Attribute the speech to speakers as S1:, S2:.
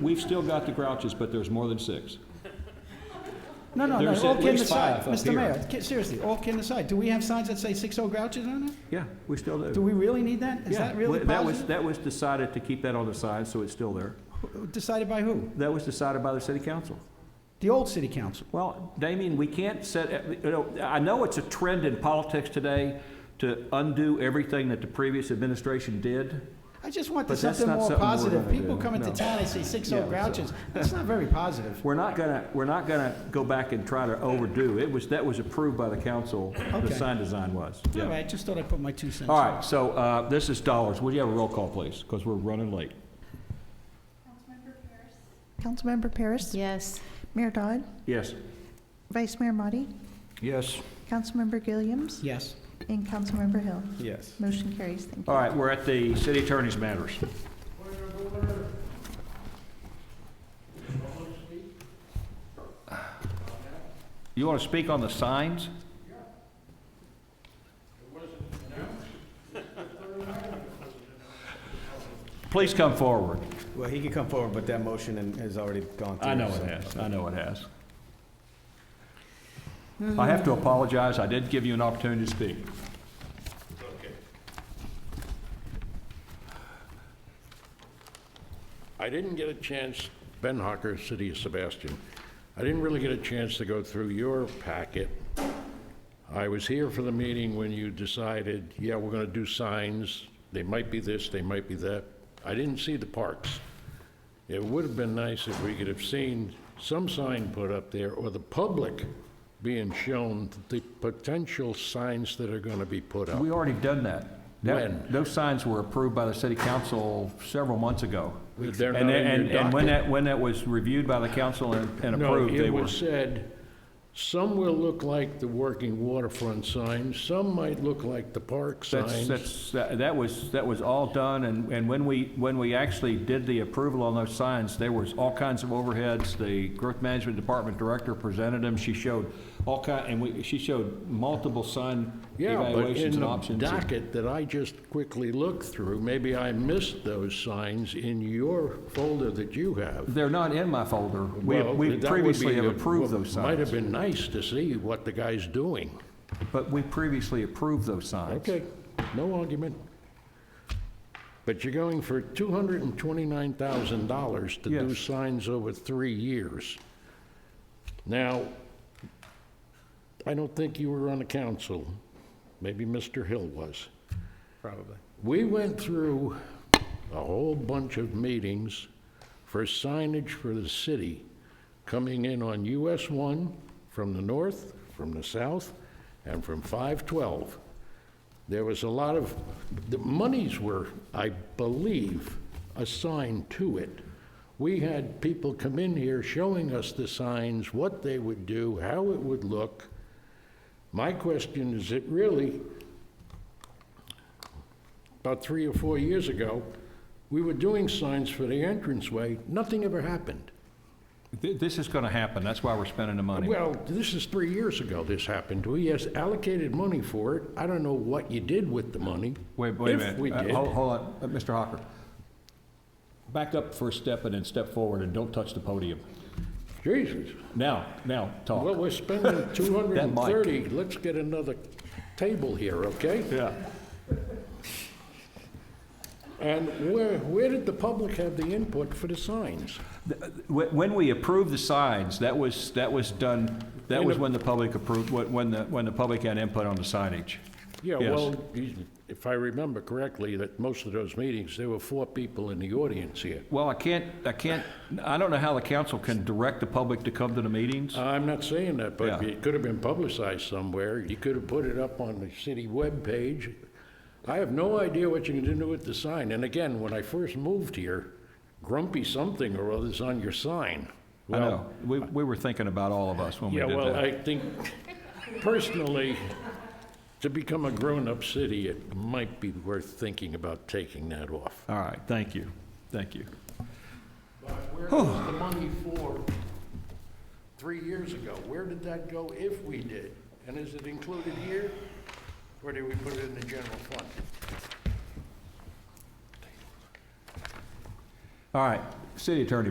S1: We've still got the Grouches, but there's more than six.
S2: No, no, no,
S1: There's
S2: all
S1: at
S2: kidding
S1: least
S2: aside,
S1: five up
S2: Mr.
S1: here.
S2: Mayor, ki- seriously, all kidding aside, do we have signs that say six oh grouches on it?
S1: Yeah, we still
S2: Do we really need that? Is
S1: Yeah,
S2: that really
S1: well, That was,
S2: positive?
S1: that was decided to keep that on the side, so it's still there.
S2: Decided by who?
S1: That was decided by the city council.
S2: The old city council.
S1: Well, Damien, we can't set, you know, I know it's a trend in politics today to undo everything that the previous administration did.
S2: I just want
S1: But that's
S2: something
S1: not
S2: more
S1: something we're
S2: positive.
S1: gonna
S2: People
S1: do,
S2: coming to
S1: no.
S2: town, they say six
S1: Yeah,
S2: oh
S1: so-
S2: grouches. That's not very positive.
S1: We're not gonna, we're not gonna go back and try to overdo. It was, that was approved by the council, the
S2: Okay.
S1: sign design was.
S2: All
S1: Yeah.
S2: right, just thought I'd put my two cents.
S1: All
S2: in.
S1: right, so uh, this is dollars. Would you have a roll call, please? Because we're running late.
S3: Councilmember Paris?
S4: Yes.
S3: Mayor Dodd?
S1: Yes.
S3: Vice Mayor Motti?
S1: Yes.
S3: Councilmember Gilliams?
S2: Yes.
S3: And Councilmember Hill?
S5: Yes.
S3: Motion carries. Thank you.
S1: All right, we're at the city attorney's matters. You want to speak on the signs? Please come forward.
S5: Well, he can come forward, but that motion and- has already gone through.
S1: I know it
S5: so-
S1: has, I know it has. I have to apologize, I did give you an opportunity to speak.
S6: I didn't get a chance, Ben Hocker, City of Sebastian, I didn't really get a chance to go through your packet. I was here for the meeting when you decided, yeah, we're gonna do signs, they might be this, they might be that. I didn't see the parks. It would have been nice if we could have seen some sign put up there, or the public being shown the potential signs that are gonna be put up.
S1: We already done that. That-
S6: Oh. When?
S1: Those signs were approved by the city council several months ago.
S6: They're
S1: And-
S6: not in
S1: and-
S6: your
S1: And when
S6: docket.
S1: that, when that was reviewed by the council and and
S6: No,
S1: approved, they
S6: it
S1: were.
S6: was said, some will look like the working waterfront signs, some might look like the park
S1: That's,
S6: signs.
S1: that's, that that was, that was all done, and, and when we, when we actually did the approval on those signs, there was all kinds of overheads. The growth management department director presented them, she showed all kind, and we, she showed multiple sign
S6: Yeah, but
S1: evaluations
S6: in
S1: and
S6: the
S1: options.
S6: docket that I just quickly looked through, maybe I missed those signs in your folder that you have.
S1: They're not in my folder. We,
S6: Well,
S1: we
S6: that would be
S1: previously have
S6: the-
S1: approved
S6: well,
S1: those
S6: Might have
S1: signs,
S6: been nice to see what the guy's doing.
S1: but we previously approved those signs.
S6: Okay, no argument. But you're going for $229,000 to do
S1: Yes.
S6: signs over three years. Now, I don't think you were on the council. Maybe Mr. Hill was.
S5: Probably.
S6: We went through a whole bunch of meetings for signage for the city, coming in on US 1 from the north, from the south, and from 512. There was a lot of, the monies were, I believe, assigned to it. We had people come in here showing us the signs, what they would do, how it would look. My question is, it really, about three or four years ago, we were doing signs for the entranceway, nothing ever happened.
S1: Th- This is going to happen, that's why we're spending the money.
S6: Well, this is three years ago this happened. We has allocated money for it. I don't know what you did with the money.
S1: Wait, wait a minute.
S6: If we
S1: Uh,
S6: did.
S1: Hold hold on, Uh, Mr. Hawker. Back up for a step and then step forward and don't touch the podium.
S6: Jesus.
S1: Now, now,
S6: Well,
S1: talk.
S6: we're spending 230.
S1: mic.
S6: Let's get another table here, okay?
S1: Yeah.
S6: And where, where did the public have the input for the signs?
S1: uh, When when we approved the signs, that was, that was done, that
S6: In
S1: was
S6: the-
S1: when the public approved, when when the, when the public had input on the signage.
S6: Yeah,
S1: Yes.
S6: well, you- if I remember correctly, that most of those meetings, there were four people in the audience here.
S1: Well, I can't, I can't, I don't know how the council can direct the public to come to the meetings.
S6: I'm not saying that, but
S1: Yeah.
S6: it could have been publicized somewhere. You could have put it up on the city webpage. I have no idea what you're gonna do with the sign. And again, when I first moved here, grumpy something or other's on your sign.
S1: I
S6: Well,
S1: know, we, we were thinking about all of us when we
S6: Yeah,
S1: did that.
S6: well, I think personally, to become a grown-up city, it might be worth thinking about taking that off.
S1: All right, thank you, thank you.
S6: Where was the money for three years ago? Where did that go if we did? And is it included here? Or did we put it in the general fund?
S1: All right, city attorney,